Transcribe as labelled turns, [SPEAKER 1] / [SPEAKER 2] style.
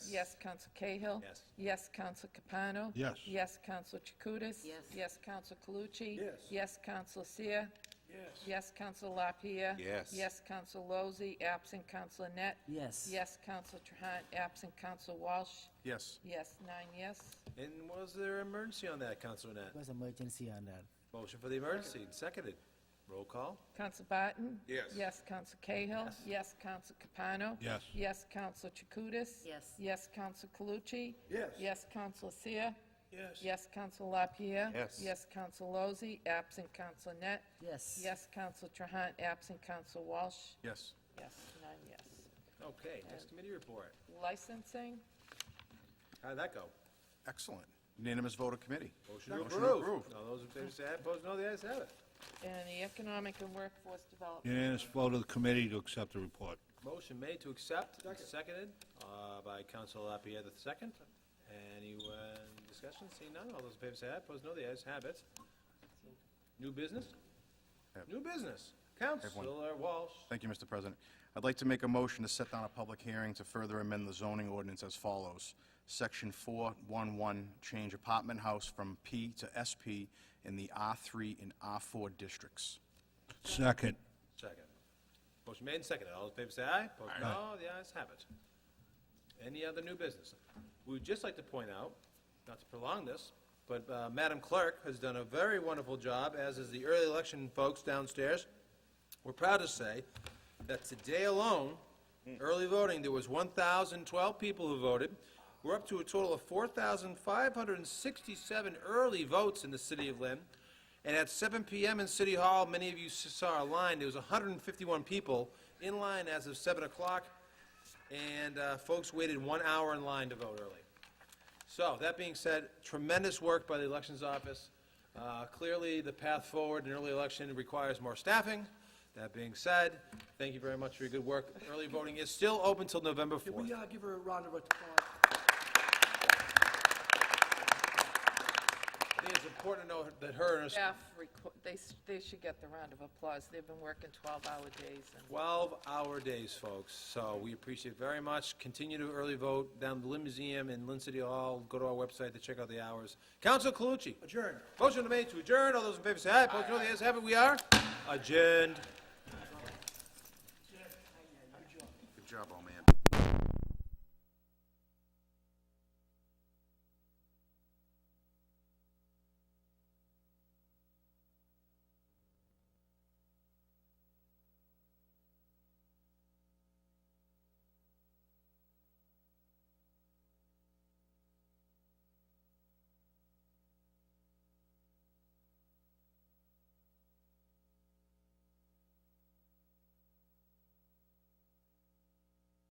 [SPEAKER 1] Yes, Counsel Cahill.
[SPEAKER 2] Yes.
[SPEAKER 1] Yes, Counsel Capano.
[SPEAKER 3] Yes.
[SPEAKER 1] Yes, Counsel Chakutis.
[SPEAKER 4] Yes.
[SPEAKER 1] Yes, Counsel Calucci.
[SPEAKER 2] Yes.
[SPEAKER 1] Yes, Counsel Seer. Yes. Yes, Counsel LaPierre.
[SPEAKER 2] Yes.
[SPEAKER 1] Yes, Counsel Lozey, absent Counsel Net.
[SPEAKER 4] Yes.
[SPEAKER 1] Yes, Counsel Trahan, absent Counsel Walsh.
[SPEAKER 2] Yes.
[SPEAKER 1] Yes, nine yes.
[SPEAKER 2] And was there emergency on that, Councilor Net?
[SPEAKER 4] Was emergency on that.
[SPEAKER 2] Motion for the emergency, seconded. Roll call?
[SPEAKER 1] Counsel Barton?
[SPEAKER 2] Yes.
[SPEAKER 1] Yes, Counsel Cahill? Yes. Council Capano?
[SPEAKER 3] Yes.
[SPEAKER 1] Yes, Counsel Chakutis?
[SPEAKER 4] Yes.
[SPEAKER 1] Yes, Counsel Calucci?
[SPEAKER 2] Yes.
[SPEAKER 1] Yes, Counsel Seer?
[SPEAKER 2] Yes.
[SPEAKER 1] Yes, Counsel LaPierre?
[SPEAKER 2] Yes.
[SPEAKER 1] Yes, Counsel Lozey, absent Counsel Net?
[SPEAKER 4] Yes.
[SPEAKER 1] Yes, Counsel Trahan, absent Counsel Walsh?
[SPEAKER 2] Yes.
[SPEAKER 1] Yes, none yes.
[SPEAKER 2] Okay, next committee report.
[SPEAKER 1] Licensing?
[SPEAKER 2] How'd that go?
[SPEAKER 3] Excellent. Unanimous vote of committee.
[SPEAKER 2] Motion
[SPEAKER 3] approved.
[SPEAKER 2] All those in favor say aye, opposed no, the ayes have it.
[SPEAKER 1] And the Economic and Workforce Development?
[SPEAKER 3] Unanimous vote of the committee to accept the report.
[SPEAKER 2] Motion made to accept, seconded uh, by Councilor Lapierre the second. Any uh, discussion? Seeing none, all those in favor say aye, opposed no, the ayes have it. New business?
[SPEAKER 5] Yep.
[SPEAKER 2] New business. Councilor Walsh.
[SPEAKER 5] Thank you, Mr. President. I'd like to make a motion to set down a public hearing to further amend the zoning ordinance as follows. Section 411, change apartment house from P to SP in the R3 and R4 districts.
[SPEAKER 3] Second.
[SPEAKER 2] Second. Motion made and seconded. All those in favor say aye. Opposed, no. The ayes have it. Any other new business? We would just like to point out, not to prolong this, but uh, Madam Clerk has done a very wonderful job, as is the early election folks downstairs. We're proud to say that today alone, early voting, there was 1,012 people who voted. We're up to a total of 4,567 early votes in the city of Lynn. And at 7 PM in City Hall, many of you s- saw a line, there was 151 people in line as of 7 o'clock, and uh, folks waited one hour in line to vote early. So, that being said, tremendous work by the Elections Office. Uh, Clearly, the path forward in early election requires more staffing. That being said, thank you very much for your good work. Early voting is still open till November 4th.
[SPEAKER 6] Can we uh, give her a round of applause?
[SPEAKER 2] I think it's important to know that her and her
[SPEAKER 1] Staff, requ- they, s- they should get the round of applause. They've been working 12-hour days and
[SPEAKER 2] 12-hour days, folks, so we appreciate it very much. Continue to early vote down at the Lynn Museum in Lynn City Hall. Go to our website to check out the hours. Council Calucci.
[SPEAKER 6] Adjourn.
[SPEAKER 2] Motion to made to adjourn. All those in favor say aye. Opposed, no. The ayes have it. We are adjourned.